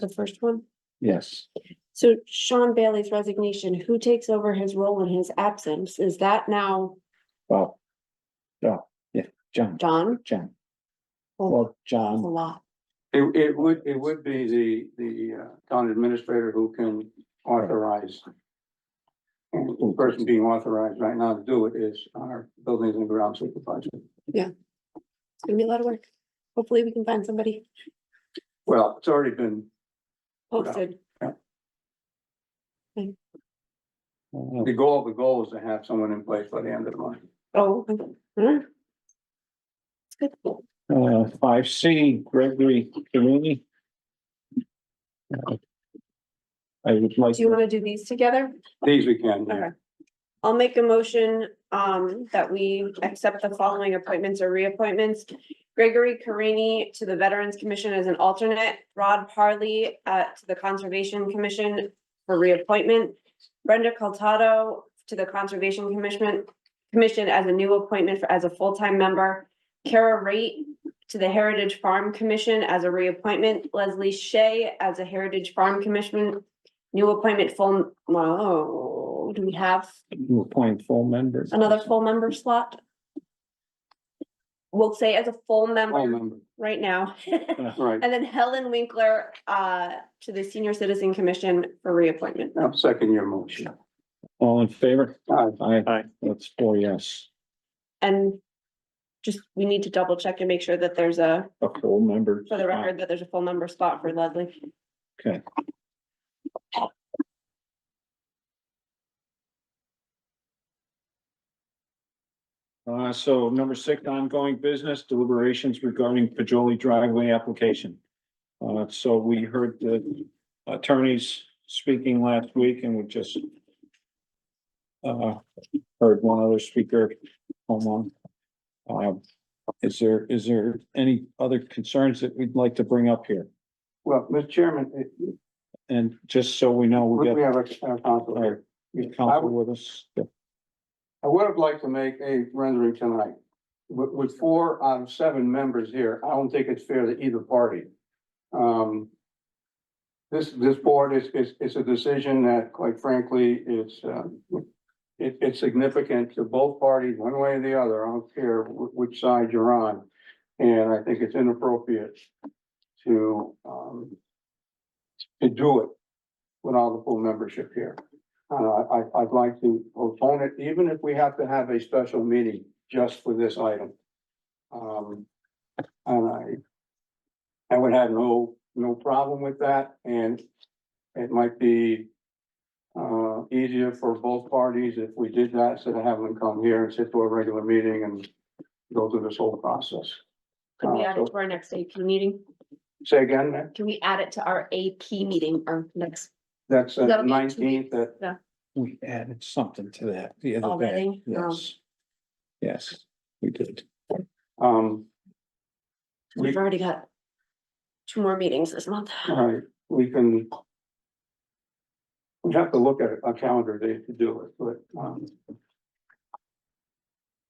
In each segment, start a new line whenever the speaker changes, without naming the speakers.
the first one.
Yes,
So Sean Bailey's resignation, who takes over his role in his absence? Is that now
well. Yeah, yeah, John,
John?
John.
Well,
Well,
that's a
John,
lot.
It, it would, it would be the, the uh, town administrator who can authorize. And the person being authorized right now to do it is our buildings and grounds supervisor.
It's gonna be a lot of work. Hopefully, we can find somebody
Well, it's already been,
posted.
uh,
the goal, the goal is to have someone in place by the end of the month.
Oh. okay. Alright. It's good.
uh, five C, Gregory Carrini. Uh, I would like,
Do you wanna do these together?
These we can, uh,
Okay. I'll make a motion um that we accept the following appointments or reappointments. Gregory Carini to the Veterans Commission as an alternate, Rod Parley uh to the Conservation Commission for reappointment. Brenda Coltado to the Conservation Commission, Commission as a new appointment for as a full-time member. Kara Rate to the Heritage Farm Commission as a reappointment, Leslie Shea as a Heritage Farm Commission. New appointment full, whoa, do we have
to appoint full members.
another full member slot? We'll say as a full
All
member
members,
right now.
right,
And then Helen Winkler uh to the Senior Citizen Commission for reappointment.
I'll second your motion.
All in favor?
Aye.
Aye.
Aye.
That's four yes,
And just, we need to double check and make sure that there's a,
a full member.
for the record, that there's a full member spot for Leslie.
Okay. Uh, so number six, ongoing business deliberations regarding Pajoli driveway application. Uh, so we heard the attorneys speaking last week and we just uh, heard one other speaker, hold on. Um, is there, is there any other concerns that we'd like to bring up here?
Well, Mr. Chairman, it-
And just so we know, we
we we
got
have our our counsel
our
here. I
council
would-
with us.
I would have liked to make a rendering tonight. With, with four out of seven members here, I don't think it's fair to either party. Um, this, this board is, is, is a decision that quite frankly is, um, it, it's significant to both parties, one way or the other. I don't care wh- which side you're on. And I think it's inappropriate to, um, to do it without the full membership here. Uh, I, I'd like to postpone it, even if we have to have a special meeting just for this item. Um, and I, I would have no, no problem with that, and it might be uh, easier for both parties if we did that, instead of having them come here and sit to a regular meeting and go through this whole process.
Could we
Uh,
add it to our next AP meeting?
Say again, Nick?
Can we add it to our AP meeting or next
that's
That'll
the
be two
nineteenth, that,
We added something to that the other day.
already? Um,
Yes. Yes, we did.
um, we-
Um, We've already got two more meetings this month.
All right, we can. We have to look at a calendar date to do it, but, um.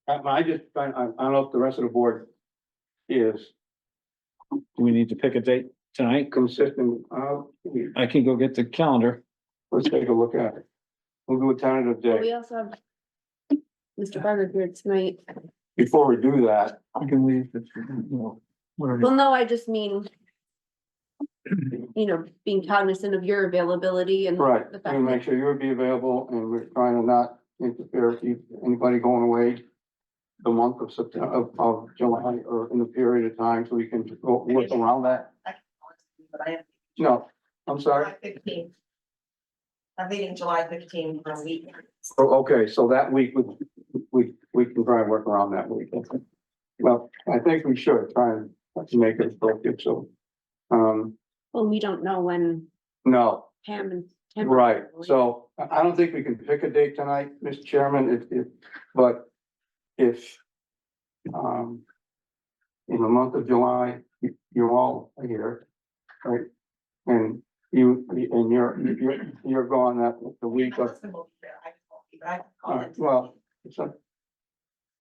I, I just, I, I I don't know if the rest of the board is
Do we need to pick a date tonight?
consistent, uh, we,
I can go get the calendar.
let's take a look at it. We'll do a tentative
But We
date.
also have Mr. Barber here tonight.
Before we do that,
I can leave. if you want. Whatever.
Well, no, I just mean, you know, being cognizant of your availability and
right,
The back
and make sure you would be available and we're trying to not interfere with you- anybody going away. The month of September, of, of July or in the period of time, so we can go work around that.
But I am
No, I'm sorry.
July fifteen. I'm leaving July fifteen for a week.
Oh, okay, so that week, we, we, we can try and work around that week. Okay. Well, I think we should try and make it productive, so. Um,
well, we don't know when
no,
Pam and. Tim are
right,
available.
so I, I don't think we can pick a date tonight, Mr. Chairman, if, if, but if. Um. In the month of July, you, you all are here, right? And you, and you're, you're, you're gone that, the week
My
of
husband will be there. I just won't be, but I can call
All
in
right,
to-
well, so.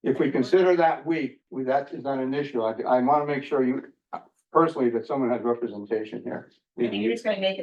If we consider that week, we, that is not an issue. I, I want to make sure you,
personally that someone has representation here.
I think you're just gonna make it